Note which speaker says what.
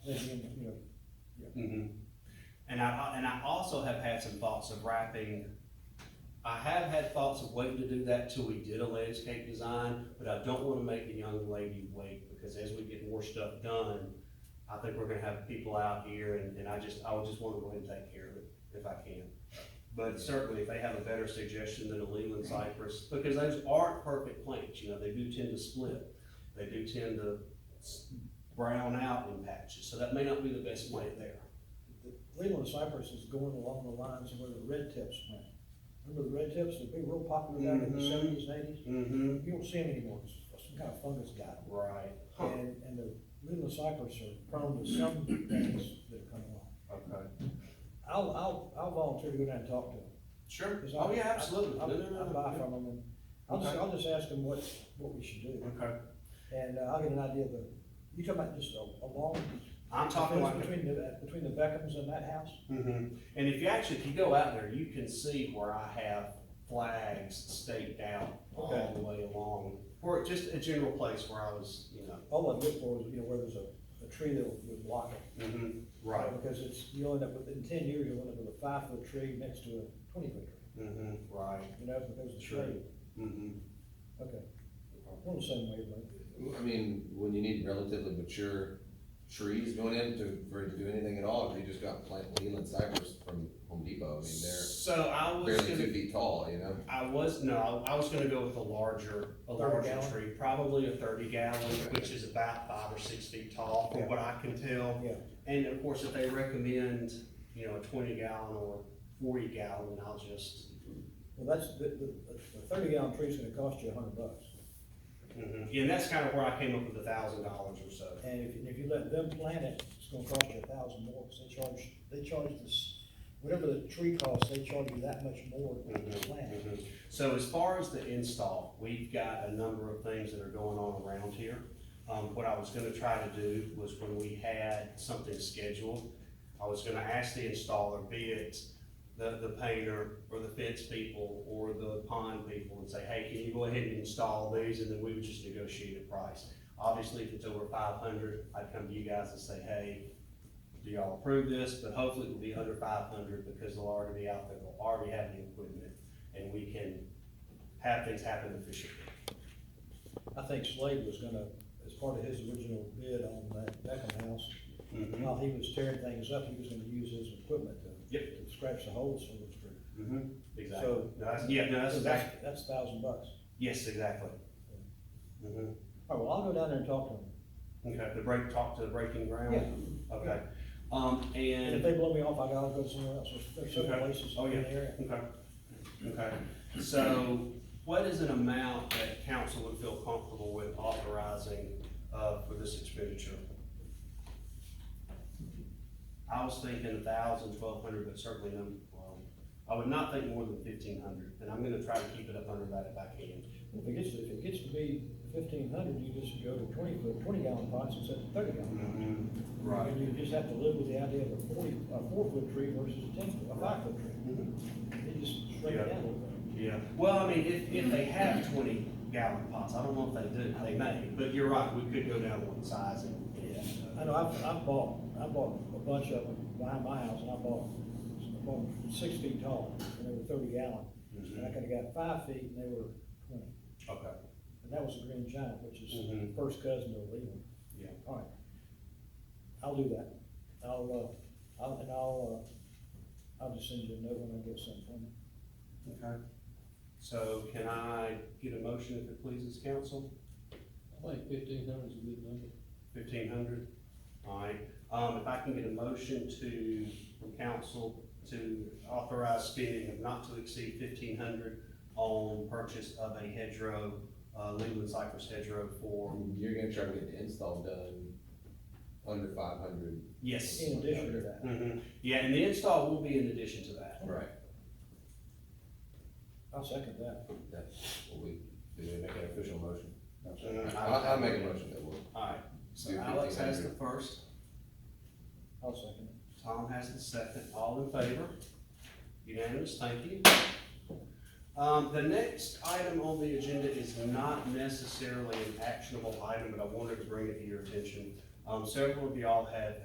Speaker 1: Mhm. And I, and I also have had some thoughts of wrapping, I have had thoughts of waiting to do that till we did a landscape design, but I don't wanna make the young lady wait, because as we get more stuff done, I think we're gonna have people out here, and, and I just, I would just wanna go ahead and take care of it, if I can. But certainly, if they have a better suggestion than a Leland cypress, because those aren't perfect plants, you know, they do tend to split. They do tend to s- brown out in patches, so that may not be the best way there.
Speaker 2: Leland cypress is going along the lines of where the red tips went. Remember the red tips, they'd be real popular back in the
Speaker 1: Mhm.
Speaker 2: seventies, eighties?
Speaker 1: Mm-hmm.
Speaker 2: You don't see them anymore, it's some kind of fungus got them.
Speaker 1: Right.
Speaker 2: And, and the Leland cypress are prone to some things that come along.
Speaker 1: Okay.
Speaker 2: I'll, I'll, I'll volunteer to go down and talk to them.
Speaker 1: Sure.
Speaker 2: 'cause I-
Speaker 1: Oh, yeah, absolutely.
Speaker 2: I-
Speaker 1: No,
Speaker 2: I'll,
Speaker 1: no, no,
Speaker 2: I'll buy
Speaker 1: no.
Speaker 2: from them and I'll just,
Speaker 1: Okay.
Speaker 2: I'll just ask them what, what we should do.
Speaker 1: Okay.
Speaker 2: And uh, I'll get an idea of the, you talking about just a, a long.
Speaker 1: I'm talking like,
Speaker 2: Between the, between the Beckhams and that house?
Speaker 1: Mhm. and if you actually, if you go out there, you can see where I have flags staked out all
Speaker 2: Okay.
Speaker 1: the way along. Or just a general place where I was, you know,
Speaker 2: All I look for is, you know, where there's a, a tree that would block it.
Speaker 1: mhm, right,
Speaker 2: Because it's, you'll end up with, in ten years, you'll end up with a five foot tree next to a twenty foot tree,
Speaker 1: mhm, right,
Speaker 2: you know, because of the
Speaker 1: Sure.
Speaker 2: shade.
Speaker 1: mhm.
Speaker 2: Okay. We're on the same wavelength.
Speaker 3: I mean, when you need relatively mature trees going in to, for it to do anything at all, if you just got plant Leland cypress from Home Depot, I mean, they're
Speaker 1: So I was
Speaker 3: barely two
Speaker 1: gonna,
Speaker 3: feet tall, you know?
Speaker 1: I was, no, I was gonna go with a larger, a
Speaker 2: 30
Speaker 1: larger
Speaker 2: gallon?
Speaker 1: tree, probably a thirty gallon, which is about five or six feet tall,
Speaker 2: Yeah.
Speaker 1: from what I can tell.
Speaker 2: Yeah,
Speaker 1: And of course, if they recommend, you know, a twenty gallon or forty gallon, I'll just,
Speaker 2: well, that's, the, the, the thirty gallon tree's gonna cost you a hundred bucks.
Speaker 1: Mhm. and that's kind of where I came up with a thousand dollars or so.
Speaker 2: And if, and if you let them plant it, it's gonna cost you a thousand more, because they charge, they charge this, whatever the tree costs, they charge you that much more to
Speaker 1: Mhm,
Speaker 2: plant. it.
Speaker 1: mhm. So as far as the install, we've got a number of things that are going on around here. Um, what I was gonna try to do was when we had something scheduled, I was gonna ask the installer, be it the, the painter or the fence people or the pond people and say, hey, can you go ahead and install these? And then we would just negotiate a price. Obviously, if it's over five hundred, I'd come to you guys and say, hey, do y'all approve this? But hopefully it will be under five hundred because they'll already be out there, they'll already have the equipment and we can have things happen efficiently.
Speaker 2: I think Slade was gonna, as part of his original bid on that Beckham house,
Speaker 1: Mhm,
Speaker 2: while he was tearing things up, he was gonna use his equipment to.
Speaker 1: Yep.
Speaker 2: to Scratch the holes through the tree.
Speaker 1: mhm, Exactly.
Speaker 2: So-
Speaker 1: No, that's- Yeah, no, that's exactly,
Speaker 2: That's a thousand bucks.
Speaker 1: yes, exactly. Mhm.
Speaker 2: All right, Oh, well, I'll go down there and talk to him.
Speaker 1: Okay, the break, talk to the breaking ground? Okay. Um,
Speaker 2: And if
Speaker 1: and,
Speaker 2: they blow me off, I gotta go somewhere else. There's- There's several
Speaker 1: Okay.
Speaker 2: places
Speaker 1: Oh,
Speaker 2: in
Speaker 1: yeah.
Speaker 2: the area.
Speaker 1: okay, okay. So what is an amount that council would feel comfortable with authorizing, uh, for this expenditure? I was thinking a thousand, twelve hundred, but certainly no, um, I would not think more than fifteen hundred, and I'm gonna try to keep it up under that if I can.
Speaker 2: If it gets, if it gets to be fifteen hundred, you just go to twenty foot, twenty gallon pots instead of thirty gallon.
Speaker 1: Mm-hmm. Right.
Speaker 2: And you just have to live with the idea of a forty, a four foot tree versus a ten, foot- a five foot tree. It just shrink
Speaker 1: Yeah.
Speaker 2: it down a little bit.
Speaker 1: Yeah, Mm-hmm. well, I mean, if, if they have twenty gallon pots, I don't know if they do, they may, but you're right, we could go down one size and.
Speaker 2: I know, I've, I've bought, I bought a bunch of them behind my house, and I bought, I bought them six feet tall, and they were thirty gallon. And I
Speaker 1: Mhm.
Speaker 2: could've got five feet, and they were twenty,
Speaker 1: Okay,
Speaker 2: and that was a green giant, which is
Speaker 1: Mhm.
Speaker 2: first cousin to a Leland.
Speaker 1: yeah,
Speaker 2: All right, I'll do that. I'll, uh, I'll, and I'll, uh, I'll just send you a note when I get something from you.
Speaker 1: okay. So can I get a motion if it pleases council,
Speaker 4: I think fifteen hundred is a good number.
Speaker 1: fifteen hundred? All right, um, if I can get a motion to, from council to authorize spending of not to exceed fifteen hundred on purchase of a hedgerow, uh, Leland cypress hedgerow for,
Speaker 3: You're gonna try to get the install done under five hundred.
Speaker 1: yes.
Speaker 2: In addition to that,
Speaker 1: hmm yeah, and the install will be in addition to that.
Speaker 3: Right.
Speaker 2: I'll second that.
Speaker 3: That's what we, do we make an official motion?
Speaker 1: Uh,
Speaker 3: I, I make a motion that will.
Speaker 1: Alright, so
Speaker 3: Do
Speaker 1: Alex has the
Speaker 3: 1500.
Speaker 1: first,
Speaker 2: I'll second it.
Speaker 1: Tom has the second, all in favor? Unanimous, thank you. Um, the next item on the agenda is not necessarily an actionable item, but I wanted to bring it to your attention. Um, several of y'all have